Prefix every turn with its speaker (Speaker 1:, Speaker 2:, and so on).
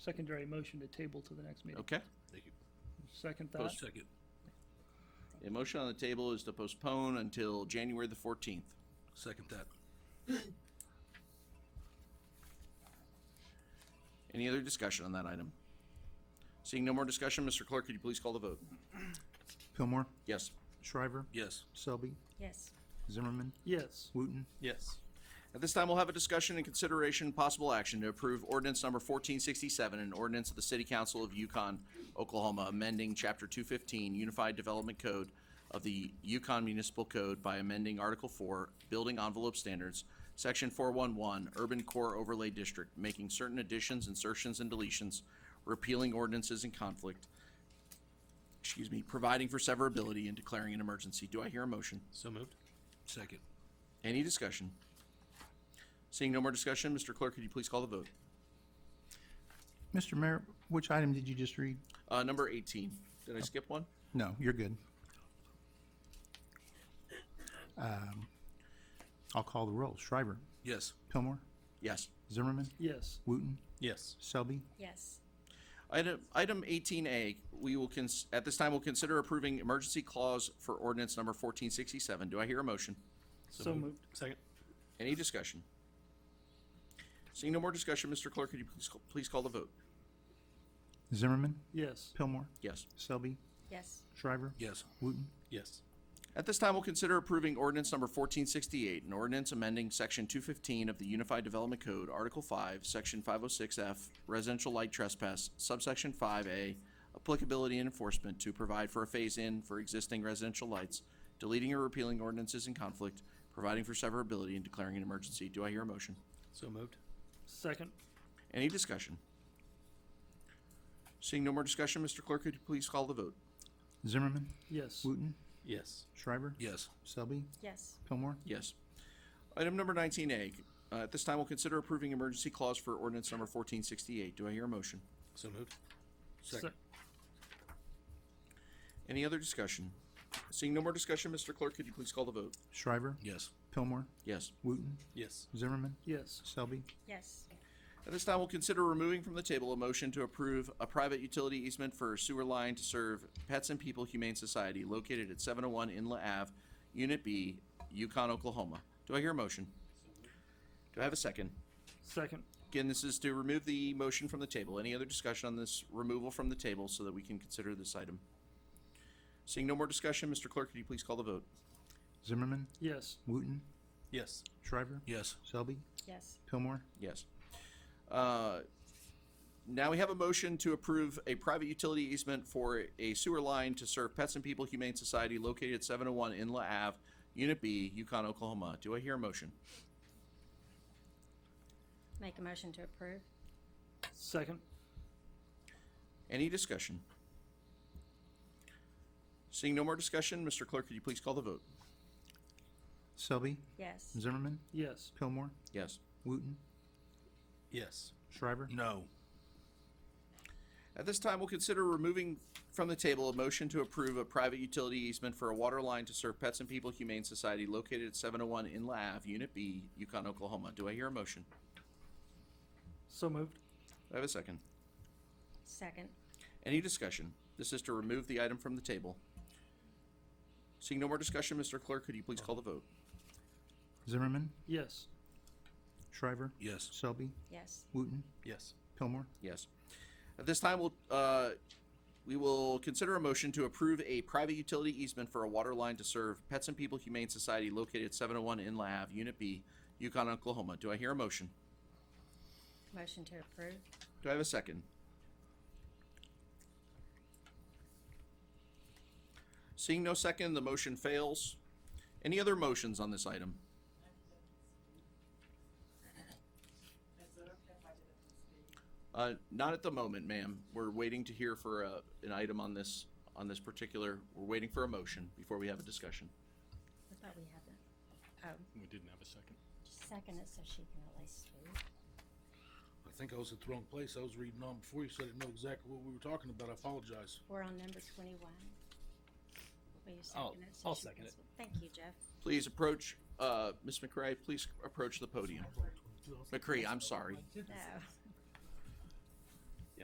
Speaker 1: secondary motion to table to the next meeting.
Speaker 2: Okay.
Speaker 1: Second thought,
Speaker 2: Post-
Speaker 3: Second.
Speaker 2: The motion on the table is to postpone until January the fourteenth.
Speaker 3: Second that.
Speaker 2: Any other discussion on that item? Seeing no more discussion, Mr. Clerk, could you please call the vote?
Speaker 4: Pillmore,
Speaker 2: Yes.
Speaker 4: Shriver,
Speaker 3: Yes.
Speaker 4: Selby,
Speaker 5: yes,
Speaker 4: Zimmerman,
Speaker 1: yes.
Speaker 4: Wooten,
Speaker 6: yes,
Speaker 2: At this time, we'll have a discussion and consideration, possible action to approve ordinance number fourteen sixty-seven, an ordinance of the City Council of Yukon, Oklahoma, amending chapter two fifteen Unified Development Code of the Yukon Municipal Code by amending Article four, Building Envelope Standards, Section four one one, Urban Core Overlay District, making certain additions, insertions, and deletions, repealing ordinances in conflict, excuse me, providing for severability and declaring an emergency. Do I hear a motion?
Speaker 6: so moved,
Speaker 3: Second.
Speaker 2: Any discussion? Seeing no more discussion, Mr. Clerk, could you please call the vote?
Speaker 4: Mr. Mayor, which item did you just read?
Speaker 2: Uh, number eighteen. Did I skip one?
Speaker 4: No, you're good. Um, Um, I'll call the roll. Shriver,
Speaker 3: Yes.
Speaker 4: Pillmore,
Speaker 2: Yes.
Speaker 4: Zimmerman,
Speaker 1: Yes,
Speaker 4: Wooten,
Speaker 6: yes,
Speaker 4: Selby,
Speaker 5: yes,
Speaker 2: Item, item eighteen A, we will cons, at this time, we'll consider approving emergency clause for ordinance number fourteen sixty-seven. Do I hear a motion?
Speaker 1: so moved,
Speaker 6: second,
Speaker 2: Any discussion? Seeing no more discussion, Mr. Clerk, could you please, call- please call the vote?
Speaker 4: Zimmerman,
Speaker 1: yes,
Speaker 4: Pillmore,
Speaker 2: Yes.
Speaker 4: Selby,
Speaker 5: yes,
Speaker 4: Shriver,
Speaker 3: Yes.
Speaker 4: Wooten,
Speaker 6: yes,
Speaker 2: At this time, we'll consider approving ordinance number fourteen sixty-eight, an ordinance amending section two fifteen of the Unified Development Code, Article five, section five oh six F, residential light trespass, subsection five A, applicability and enforcement to provide for a phase-in for existing residential lights, deleting or repealing ordinances in conflict, providing for severability and declaring an emergency. Do I hear a motion?
Speaker 6: so moved,
Speaker 1: second,
Speaker 2: Any discussion? Seeing no more discussion, Mr. Clerk, could you please call the vote?
Speaker 4: Zimmerman,
Speaker 1: yes,
Speaker 4: Wooten,
Speaker 6: yes,
Speaker 4: Shriver,
Speaker 3: Yes.
Speaker 4: Selby,
Speaker 5: yes,
Speaker 4: Pillmore,
Speaker 2: Yes. Item number nineteen A, uh, at this time, we'll consider approving emergency clause for ordinance number fourteen sixty-eight. Do I hear a motion?
Speaker 6: so moved,
Speaker 3: Second.
Speaker 1: Se-
Speaker 2: Any other discussion? Seeing no more discussion, Mr. Clerk, could you please call the vote?
Speaker 4: Shriver,
Speaker 3: Yes.
Speaker 4: Pillmore,
Speaker 2: Yes.
Speaker 4: Wooten,
Speaker 6: yes,
Speaker 4: Zimmerman,
Speaker 1: yes,
Speaker 4: Selby,
Speaker 5: yes,
Speaker 2: At this time, we'll consider removing from the table a motion to approve a private utility easement for a sewer line to serve Pets and People Humane Society located at seven oh one Inlet Ave, Unit B, Yukon, Oklahoma. Do I hear a motion? Do I have a second?
Speaker 1: second,
Speaker 2: Again, this is to remove the motion from the table. Any other discussion on this removal from the table so that we can consider this item? Seeing no more discussion, Mr. Clerk, could you please call the vote?
Speaker 4: Zimmerman,
Speaker 1: yes,
Speaker 4: Wooten,
Speaker 6: yes,
Speaker 4: Shriver,
Speaker 3: Yes.
Speaker 4: Selby,
Speaker 5: yes,
Speaker 4: Pillmore,
Speaker 2: Yes. Uh, Now we have a motion to approve a private utility easement for a sewer line to serve Pets and People Humane Society located at 701 Inla Ave, Unit B, Yukon, Oklahoma. Do I hear a motion?
Speaker 5: make a motion to approve,
Speaker 1: second,
Speaker 2: Any discussion? Seeing no more discussion, Mr. Clerk, could you please call the vote?
Speaker 4: Selby,
Speaker 5: yes,
Speaker 4: Zimmerman,
Speaker 1: yes,
Speaker 4: Pillmore,
Speaker 2: Yes.
Speaker 4: Wooten,
Speaker 6: yes,
Speaker 4: Shriver,
Speaker 3: No.
Speaker 2: At this time, we'll consider removing from the table a motion to approve a private utility easement for a water line to serve Pets and People Humane Society located at 701 in Ave, Unit B, Yukon, Oklahoma. Do I hear a motion?
Speaker 1: so moved,
Speaker 2: Do I have a second?
Speaker 5: second,
Speaker 2: Any discussion? This is to remove the item from the table. Seeing no more discussion, Mr. Clerk, could you please call the vote?
Speaker 4: Zimmerman,
Speaker 1: yes,
Speaker 4: Shriver,
Speaker 3: Yes.
Speaker 4: Selby,
Speaker 5: yes,
Speaker 4: Wooten,
Speaker 6: yes,
Speaker 4: Pillmore,
Speaker 2: Yes. At this time, we'll, uh, we will consider a motion to approve a private utility easement for a water line to serve Pets and People Humane Society located at 701 Inlet Ave, Unit B, Yukon, Oklahoma. Do I hear a motion?
Speaker 5: motion to approve,
Speaker 2: Do I have a second? Seeing no second, the motion fails. Any other motions on this item? Uh, not at the moment, ma'am. We're waiting to hear for a, an item on this, on this particular, we're waiting for a motion before we have a discussion.
Speaker 5: I thought we had that, oh,
Speaker 6: we didn't have a second,
Speaker 5: just second it so she can at least read.
Speaker 3: I think I was at the wrong place. I was reading on before you, so I didn't know exactly what we were talking about. I apologize.
Speaker 5: We're on number twenty-one. Will you
Speaker 6: I'll-
Speaker 5: second it? so
Speaker 6: I'll
Speaker 5: she
Speaker 6: second
Speaker 5: can
Speaker 6: it.
Speaker 5: sw- Thank you, Jeff.
Speaker 2: Please approach, uh, Ms. McCray, please approach the podium. McCree, I'm sorry.
Speaker 5: No.